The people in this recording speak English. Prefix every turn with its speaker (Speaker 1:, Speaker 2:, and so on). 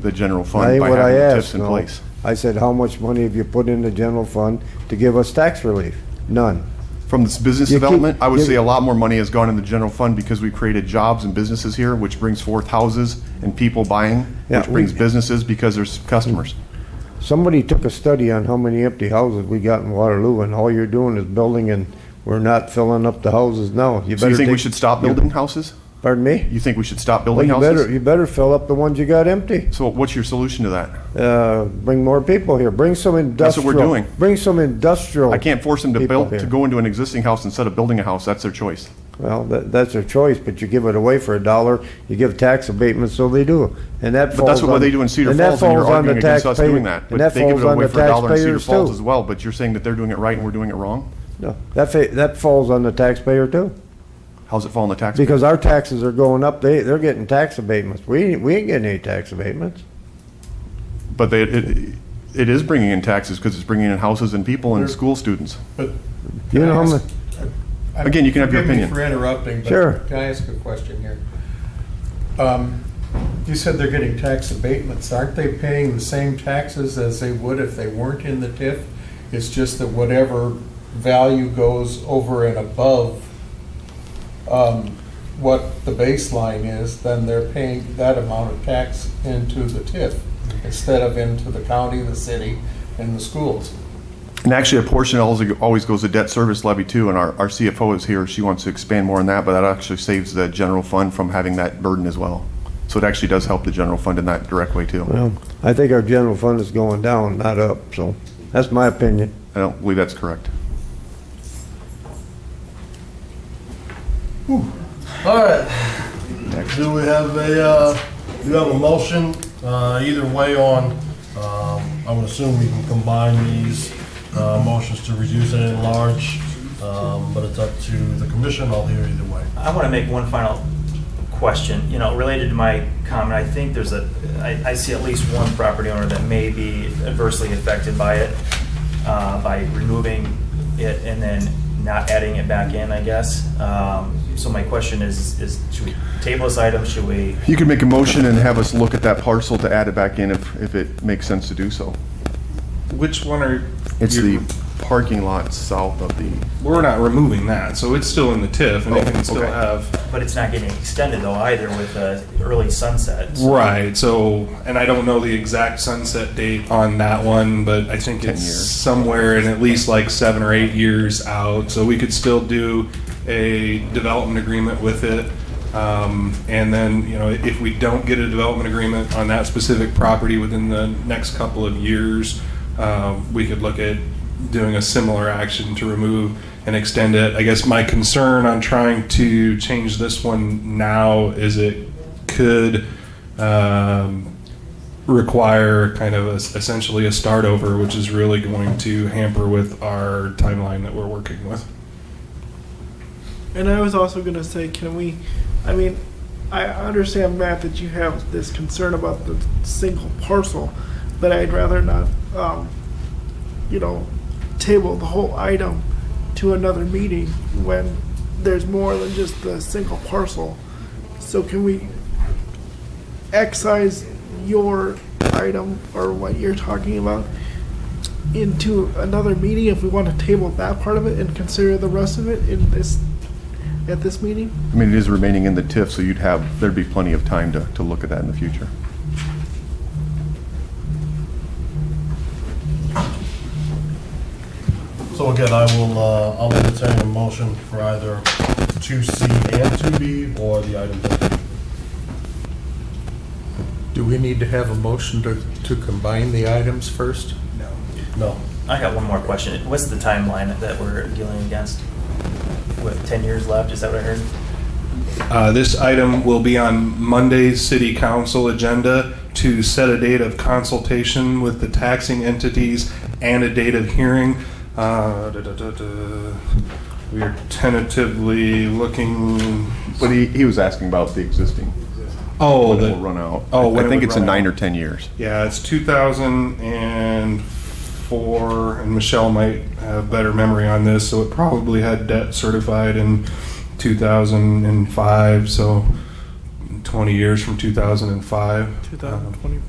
Speaker 1: the general
Speaker 2: That
Speaker 1: fund
Speaker 2: ain't
Speaker 1: by
Speaker 2: what I
Speaker 1: having the
Speaker 2: asked,
Speaker 1: TIFs in
Speaker 2: no.
Speaker 1: place.
Speaker 2: I said, how much money have you put in the general fund to give us tax relief? None.
Speaker 1: From this business
Speaker 2: You keep-
Speaker 1: development, I would
Speaker 2: you-
Speaker 1: say a lot more money has gone in the general fund because we created jobs and businesses here, which brings forth houses and people buying,
Speaker 2: Yeah,
Speaker 1: which brings
Speaker 2: we-
Speaker 1: businesses because there's customers.
Speaker 2: Somebody took a study on how many empty houses we got in Waterloo, and all you're doing is building, and we're not filling up the houses now.
Speaker 1: So you
Speaker 2: better
Speaker 1: think we
Speaker 2: take-
Speaker 1: should stop building houses?
Speaker 2: Pardon me?
Speaker 1: You think we should stop
Speaker 2: Well,
Speaker 1: building
Speaker 2: you better,
Speaker 1: houses?
Speaker 2: you better fill up the ones you got empty.
Speaker 1: So what's your solution to that?
Speaker 2: Uh, bring more people here. Bring some industrial.
Speaker 1: what we're doing.
Speaker 2: Bring some industrial.
Speaker 1: I can't force them to
Speaker 2: people
Speaker 1: build,
Speaker 2: here.
Speaker 1: to go into an existing house instead of building a house. That's their choice.
Speaker 2: Well, that, that's their choice, but you give it away for a dollar, you give tax abatement, so they do. And that falls
Speaker 1: But that's what
Speaker 2: on-
Speaker 1: they do in Cedar
Speaker 2: and that
Speaker 1: Falls, and you're
Speaker 2: falls on the
Speaker 1: arguing against us
Speaker 2: taxpayer-
Speaker 1: doing that.
Speaker 2: And
Speaker 1: But
Speaker 2: that
Speaker 1: they give
Speaker 2: falls
Speaker 1: it
Speaker 2: on
Speaker 1: away
Speaker 2: the
Speaker 1: for a dollar in Cedar
Speaker 2: taxpayers
Speaker 1: Falls as
Speaker 2: too.
Speaker 1: well, but you're saying that they're doing it right and we're doing it wrong?
Speaker 2: No, That, fa- that falls on the taxpayer too,
Speaker 1: How's it fall on the taxpayer?
Speaker 2: because our taxes are going up, they, they're getting tax abatements. We, we ain't getting any tax abatements.
Speaker 1: But they, it, it is bringing in taxes because it's bringing in houses and people and school students.
Speaker 3: But.
Speaker 2: You
Speaker 3: can I
Speaker 2: know how
Speaker 3: ask-
Speaker 2: mu-
Speaker 3: I-
Speaker 1: Again, you can have your
Speaker 3: forgive me
Speaker 1: opinion.
Speaker 3: for interrupting,
Speaker 2: Sure.
Speaker 3: but can I ask a question here? Um, You said they're getting tax abatements. Aren't they paying the same taxes as they would if they weren't in the TIF? It's just that whatever value goes over and above um, what the baseline is, then they're paying that amount of tax into the TIF instead of into the county, the city, and the schools.
Speaker 1: And actually, a portion always, always goes to debt service levy too, and our, our CFO is here. She wants to expand more on that, but that actually saves the general fund from having that burden as well. So it actually does help the general fund in that direct way too.
Speaker 2: Well, I think our general fund is going down, not up, so that's my opinion.
Speaker 1: I don't believe that's correct.
Speaker 4: All right. Do we have a, uh, do we have a motion, uh, either way on, um, I would assume we can combine these, uh, motions to reduce and enlarge, um, but it's up to the commission, I'll hear either way.
Speaker 5: I want to make one final question, you know, related to my comment. I think there's a, I, I see at least one property owner that may be adversely affected by it, uh, by removing it and then not adding it back in, I guess. Um, so my question is, is should we table this item? Should we?
Speaker 1: You could make a motion and have us look at that parcel to add it back in if, if it makes sense to do so.
Speaker 6: Which one are?
Speaker 1: It's
Speaker 6: you-
Speaker 1: the parking lot south of the,
Speaker 6: We're not removing that, so it's still in the TIF, and
Speaker 1: Oh,
Speaker 6: it can still
Speaker 1: okay.
Speaker 6: have.
Speaker 5: But it's not getting extended though either with the early sunset. So
Speaker 6: Right. So, and I don't know the exact sunset date on that one, but I think
Speaker 1: 10
Speaker 6: it's
Speaker 1: years.
Speaker 6: somewhere in at least like seven or eight years out. So we could still do a development agreement with it. Um, and then, you know, if we don't get a development agreement on that specific property within the next couple of years, um, we could look at doing a similar action to remove and extend it. I guess my concern on trying to change this one now is it could um, require kind of a, essentially a start over, which is really going to hamper with our timeline that we're working with.
Speaker 7: And I was also going to say, can we? I mean, I understand, Matt, that you have this concern about the single parcel, but I'd rather not, um, you know, table the whole item to another meeting when there's more than just the single parcel. So can we excise your item or what you're talking about into another meeting if we want to table that part of it and consider the rest of it in this at this meeting?
Speaker 1: I mean, it is remaining in the TIF, so you'd have, there'd be plenty of time to, to look at that in the future.
Speaker 4: So again, I will, uh, I'll entertain a motion for either two C and two B, or the item.
Speaker 3: Do we need to have a motion to, to combine the items first? No.
Speaker 4: No.
Speaker 5: I got one more question. What's the timeline that we're dealing against? With ten years left, is that what I heard?
Speaker 6: Uh, this item will be on Monday's city council agenda to set a date of consultation with the taxing entities and a date of hearing. Uh, da, da, da, da. We are tentatively looking.
Speaker 1: But he, he was asking about the existing,
Speaker 6: Oh,
Speaker 1: when it
Speaker 6: the-
Speaker 1: will run out.
Speaker 6: Oh,
Speaker 1: I
Speaker 6: when it
Speaker 1: think
Speaker 6: would
Speaker 1: it's in
Speaker 6: run out.
Speaker 1: nine or 10 years.
Speaker 6: Yeah, it's 2004, and Michelle might have better memory on this, so it probably had debt certified in 2005, so 20 years from 2005. Um,
Speaker 7: 2025.